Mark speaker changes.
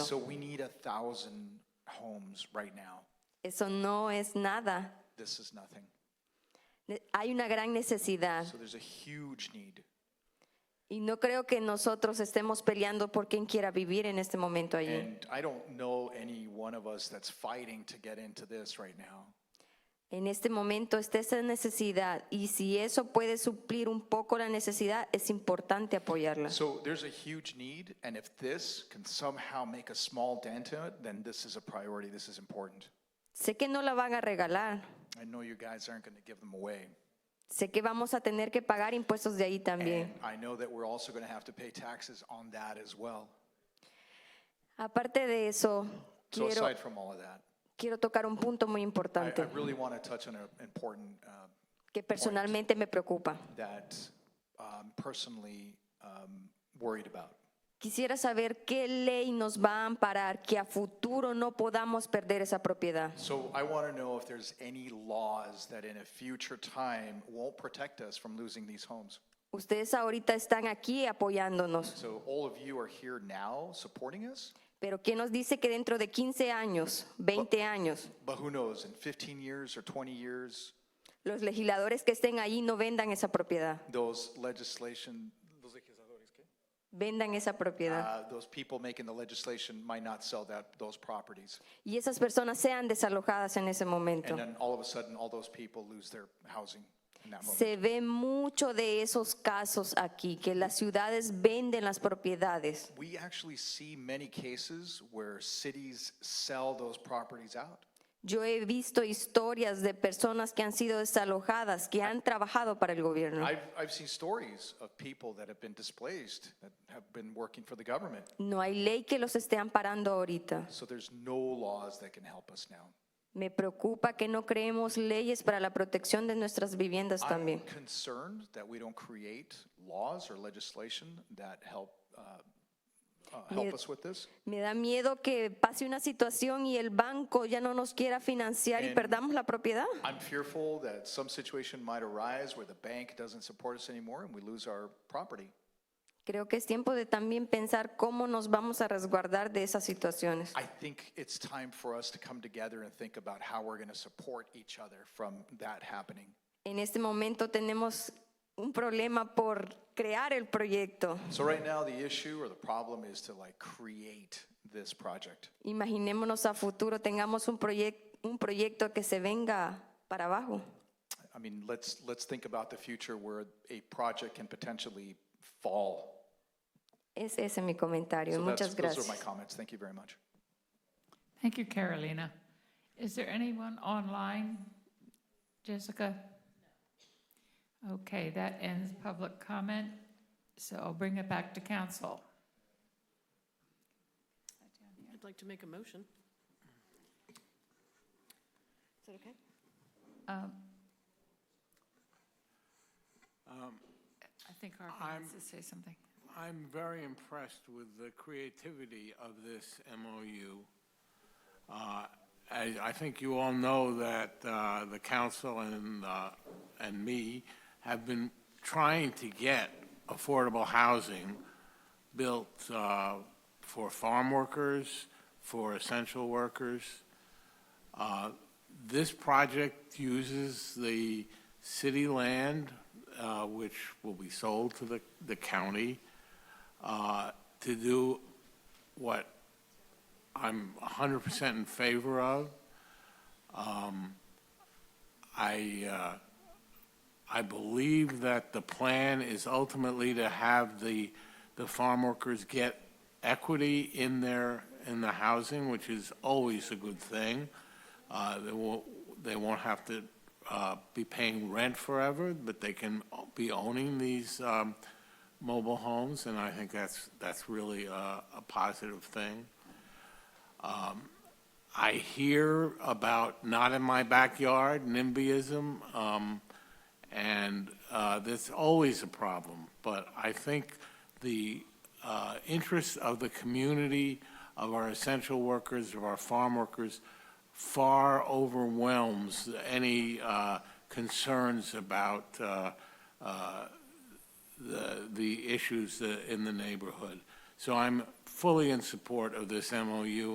Speaker 1: So we need a thousand homes right now.
Speaker 2: Eso no es nada.
Speaker 1: This is nothing.
Speaker 2: Ne- Hay una gran necesidad
Speaker 1: So there's a huge need.
Speaker 2: y no creo que nosotros estemos peleando por quien quiera vivir en este momento allí.
Speaker 1: And I don't know any one of us that's fighting to get into this right now.
Speaker 2: En este momento está esa necesidad y si eso puede suplir un poco la necesidad, es importante apoyarla.
Speaker 1: So there's a huge need, and if this can somehow make a small dent in it, then this is a priority. This is important.
Speaker 2: Sé que no la van a regalar,
Speaker 1: I know you guys aren't going to give them away.
Speaker 2: sé que vamos a tener que pagar impuestos de ahí
Speaker 1: And
Speaker 2: también.
Speaker 1: I know that we're also going to have to pay taxes on that as well.
Speaker 2: Aparte de eso,
Speaker 1: So
Speaker 2: quiero,
Speaker 1: aside from all of that,
Speaker 2: quiero tocar un punto muy
Speaker 1: I,
Speaker 2: importante
Speaker 1: I really want to touch on an important uh,
Speaker 2: que personalmente me preocupa.
Speaker 1: that I'm personally um, worried about.
Speaker 2: Quisiera saber qué ley nos va a amparar que a futuro no podamos perder esa propiedad.
Speaker 1: So I want to know if there's any laws that in a future time won't protect us from losing these homes.
Speaker 2: Ustedes ahorita están aquí apoyándonos,
Speaker 1: So all of you are here now supporting us,
Speaker 2: pero ¿qué nos dice que dentro de 15 años, 20 años,
Speaker 1: but who knows, in 15 years or 20 years,
Speaker 2: los legisladores que estén ahí no vendan esa propiedad?
Speaker 1: those legislation,
Speaker 2: Vendan esa propiedad.
Speaker 1: uh, those people making the legislation might not sell that, those properties.
Speaker 2: Y esas personas sean desalojadas en ese momento.
Speaker 1: And then all of a sudden, all those people lose their housing in that moment.
Speaker 2: Se ve mucho de esos casos aquí, que las ciudades venden las propiedades.
Speaker 1: We actually see many cases where cities sell those properties out.
Speaker 2: Yo he visto historias de personas que han sido desalojadas, que han trabajado para el gobierno.
Speaker 1: I've, I've seen stories of people that have been displaced, that have been working for the government.
Speaker 2: No hay ley que los esté amparando ahorita.
Speaker 1: So there's no laws that can help us now.
Speaker 2: Me preocupa que no creemos leyes para la protección de nuestras viviendas
Speaker 1: I'm
Speaker 2: también.
Speaker 1: concerned that we don't create laws or legislation that help, uh, uh, help
Speaker 2: Mire-
Speaker 1: us with this.
Speaker 2: Me da miedo que pase una situación y el banco ya no nos quiera financiar y
Speaker 1: En-
Speaker 2: perdamos la propiedad.
Speaker 1: I'm fearful that some situation might arise where the bank doesn't support us anymore and we lose our property.
Speaker 2: Creo que es tiempo de también pensar cómo nos vamos a resguardar de esas situaciones.
Speaker 1: I think it's time for us to come together and think about how we're going to support each other from that happening.
Speaker 2: En este momento tenemos un problema por crear el proyecto.
Speaker 1: So right now, the issue or the problem is to like create this project.
Speaker 2: Imaginémonos a futuro tengamos un, proyec- un proyecto que se venga para abajo.
Speaker 1: I mean, let's, let's think about the future where a project can potentially fall.
Speaker 2: Es ese es mi comentario.
Speaker 1: So that's-
Speaker 2: Muchas gracias.
Speaker 1: Those are my comments. Thank you very much.
Speaker 3: Thank you, Carolina. Is there anyone online? Jessica? Okay, that ends public comment, so I'll bring it back to council.
Speaker 4: I'd like to make a motion. Is that okay?
Speaker 3: Um, I think Harvey
Speaker 5: I'm-
Speaker 3: wants to say something.
Speaker 5: I'm very impressed with the creativity of this MOU. Uh, I I think you all know that uh, the council and, uh, and me have been trying to get affordable housing built uh, for farm workers, for essential workers. Uh, This project uses the city land, uh, which will be sold to the, the county, uh, to do what I'm 100% in favor of. Um, I, uh, I believe that the plan is ultimately to have the, the farm workers get equity in their, in the housing, which is always a good thing. Uh, They won't, they won't have to uh, be paying rent forever, but they can be owning these um, mobile homes, and I think that's, that's really a a positive thing. Um, I hear about not in my backyard, NIMBYism, um, and uh, that's always a problem. But I think the uh, interests of the community, of our essential workers, of our farm workers, far overwhelms any uh, concerns about uh, uh, the, the issues uh, in the neighborhood. So I'm fully in support of this MOU